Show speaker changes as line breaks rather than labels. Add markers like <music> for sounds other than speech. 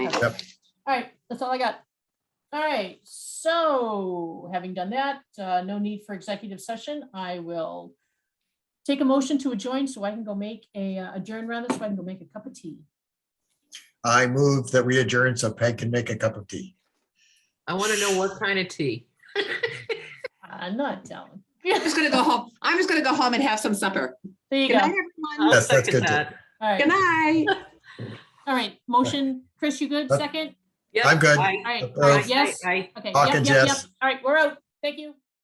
All right, that's all I got. All right, so having done that, uh, no need for executive session. I will take a motion to adjourn so I can go make a uh, adjourn rather, so I can go make a cup of tea.
I move that we adjourn so Peg can make a cup of tea.
I want to know what kind of tea.
I'm Uh, not <laughs> telling.
I'm just gonna go home. I'm just gonna go home and have some supper.
There you
Good
go. All
night, everyone.
I'll
Yes, that's
second
good, too.
that.
Good
right,
night.
all right. Motion, Chris, you good?
Yep.
Second?
Yep,
I'm good.
aye,
All right,
Uh,
aye,
yes.
aye, aye.
Okay.
Hawk
Yep.
and
Yep. Yep.
Jess.
All right, we're out. Thank you.